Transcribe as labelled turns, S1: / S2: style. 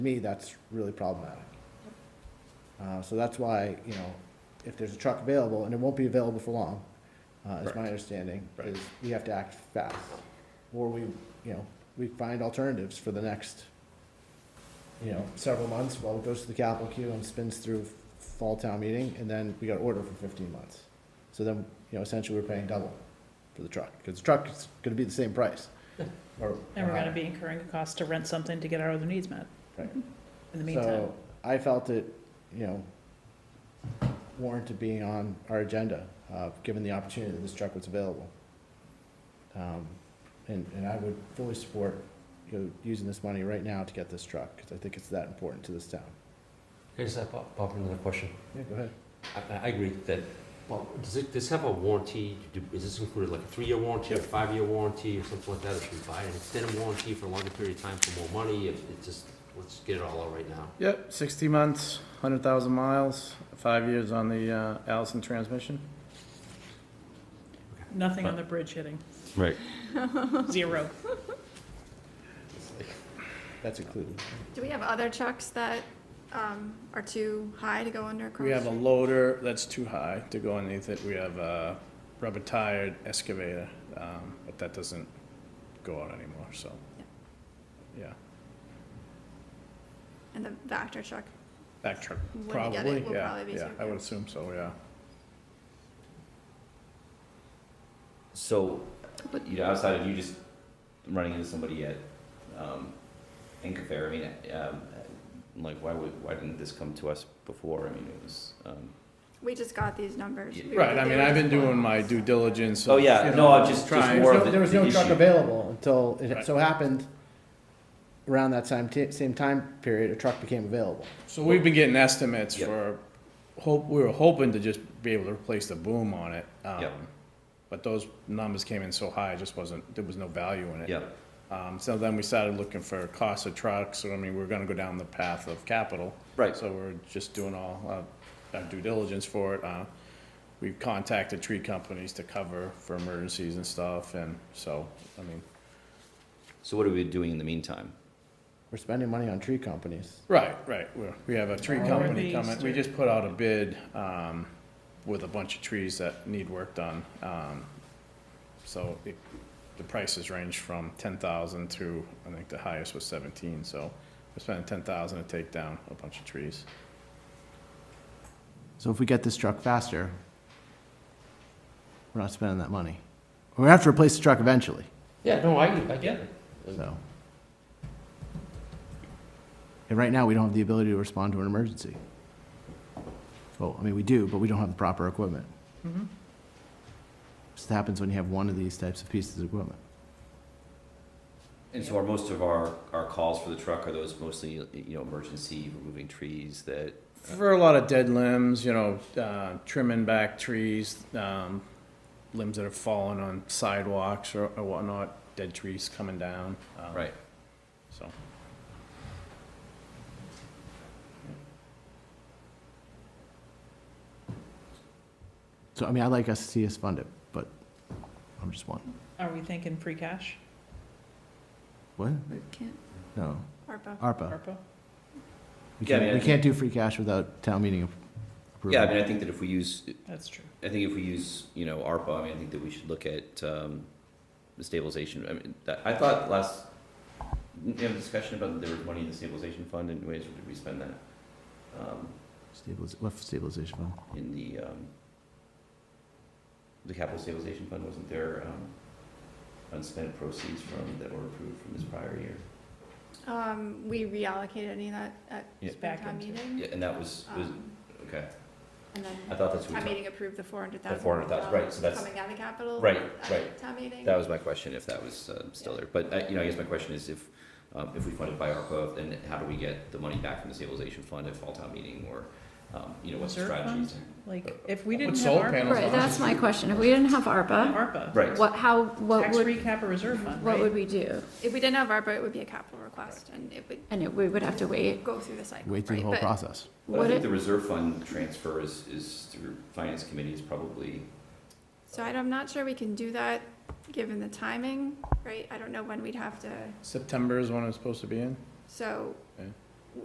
S1: me, that's really problematic. Uh, so that's why, you know, if there's a truck available, and it won't be available for long, uh, is my
S2: Correct.
S1: understanding,
S2: Right.
S1: is we have to act fast. Or we, you know, we find alternatives for the next, you know, several months while it goes to the capital queue and spins through fall town meeting, and then we got to order for fifteen months. So then, you know, essentially we're paying double for the truck, because the truck is gonna be the same price. or-
S3: And
S1: or
S3: we're gonna
S1: higher.
S3: be incurring a cost to rent something to get our other needs met.
S1: Right.
S3: In the meantime,
S1: So I felt it, you know, warranted being on our agenda, uh, given the opportunity that this truck was available. Um, And, and I would fully support, you know, using this money right now to get this truck, because I think it's that important to this town.
S4: Can I just pop, pop in another question?
S1: Yeah, go ahead.
S4: I, I agree that, well, does it, does have a warranty? Do- Is this included like a three-year warranty or five-year warranty or something like that? Or should we buy an extended warranty for a longer period of time for more money? If it just, let's get it all out right now.
S2: Yep, 60 months, 100,000 miles, five years on the uh, Allison transmission.
S3: nothing on the bridge hitting,
S5: Right.
S3: zero.
S1: That's included.
S6: Do we have other trucks that um, are too high to go under across?
S2: We have a
S6: the street?
S2: loader that's too high to go underneath it. We have a rubber-tired excavator, um, but that doesn't go out anymore, so. Yeah,
S6: And the Vector truck.
S2: that truck,
S6: When we get it,
S2: probably,
S6: we'll
S2: yeah,
S6: probably be
S2: yeah,
S6: too
S2: I would
S6: high.
S2: assume so, yeah.
S5: So,
S6: But-
S5: you know, outside of you just running into somebody at um, Inca Fair, I mean, um, like, why would why didn't this come to us before? I mean, it was. Um,
S6: We just got these numbers.
S5: Yeah.
S6: We
S2: Right,
S6: were
S2: I mean,
S6: there
S2: I've been
S6: just once.
S2: doing my due diligence.
S5: Oh,
S2: of,
S5: yeah.
S2: you
S5: No,
S2: know,
S5: I'm just- just
S2: trying-
S5: more-
S1: There was no-
S5: of the-
S1: there was
S5: the
S1: no truck
S5: issue.
S1: available until, it so
S2: Right.
S1: happened around that same, ti- same time period, a truck became available.
S2: So we've been getting estimates
S5: Yep.
S2: for, hope, we were hoping to just be able to replace the boom on it. um,
S5: Yep.
S2: But those numbers came in so high, it just wasn't, there was no value in it.
S5: Yeah.
S2: Um, so then we started looking for cost of trucks, so I mean, we're gonna go down the path of capital.
S5: Right.
S2: So we're just doing all, uh, our due diligence for it, uh, we've contacted tree companies to cover for emergencies and stuff, and so, I mean,
S5: So what are we doing in the meantime?
S1: We're spending money on tree companies.
S2: Right, right, we're, we have a tree
S3: Or
S2: company
S3: these
S2: coming, we
S3: three.
S2: just put out a bid, um, with a bunch of trees that need work done, um, so it, the prices range from ten thousand to, I think the highest was seventeen, so we're spending ten thousand to take down a bunch of trees.
S1: So if we get this truck faster, we're not spending that money. We're gonna have to replace the truck eventually,
S4: Yeah, no, I, I get it.
S1: so. And right now, we don't have the ability to respond to an emergency. Well, I mean, we do, but we don't have the proper equipment.
S3: Mhm.
S1: This happens when you have one of these types of pieces of equipment.
S5: And so are most of our, our calls for the truck, are those mostly, you know, emergency, removing trees that,
S2: For a lot of dead limbs, you know, uh, trimming back trees, um, limbs that have fallen on sidewalks or or whatnot, dead trees coming down, um,
S5: right?
S2: so.
S1: So, I mean, I'd like us to see us fund it, but I'm just one.
S3: Are we thinking free cash,
S1: What?
S6: We can't-
S1: No,
S6: ARPA.
S1: ARPA.
S3: ARPA?
S1: We
S5: Yeah, I mean,
S1: can't,
S5: I
S1: we
S5: think-
S1: can't do free cash without town meeting approval.
S5: Yeah, I mean, I think that if we use,
S3: That's true.
S5: I think if we use, you know, ARPA, I mean, I think that we should look at, um, the stabilization, I mean, that, I thought last, didn't we have a discussion about there was money in the stabilization fund, and ways did we spend that? Um,
S1: Stabiliz- what stabilization fund?
S5: in the, um, the capital stabilization fund, wasn't there, um, unspent proceeds from, that were approved from this prior year?
S6: Um, We reallocated any of that at
S5: Yeah.
S6: spring
S3: Back
S6: town
S3: into-
S6: meeting.
S5: Yeah, and that was, was,
S6: Um,
S5: okay,
S6: And
S5: I
S6: then
S5: thought that's what we
S6: town
S5: talked
S6: meeting approved the four hundred thousand.
S5: The 400,000, right, so that's-
S6: Coming out of capital.
S5: Right,
S6: at
S5: right.
S6: Town meeting.
S5: That was my question, if that was uh, still there. But, uh, you know, I guess my question is if, um, if we fund it by ARPA, then how do we get the money back from the stabilization fund at fall town meeting or, um, you know, what's the
S3: Reserve
S5: strategy?
S3: Like, if we
S2: Put
S3: didn't
S2: solar
S3: have
S2: panels
S3: ARPA,
S2: on.
S7: Right, that's my question. If we didn't have ARPA,
S3: ARPA.
S5: Right.
S7: what, how, what
S3: Tax
S7: would,
S3: recap or reserve fund,
S7: what would
S3: right?
S7: we do?
S6: If we didn't have ARPA, it would be a capital request and it would
S7: And it- we would have to wait.
S6: go through the cycle.
S1: Wait through the
S6: right?
S1: whole
S6: But-
S1: process.
S5: But I
S7: Would
S5: think the
S7: it,
S5: reserve fund transfer is, is through finance committee is probably,
S6: So I- I'm not sure we can do that, given the timing, right? I don't know when we'd have to,
S2: September is when it's supposed to be in?
S6: so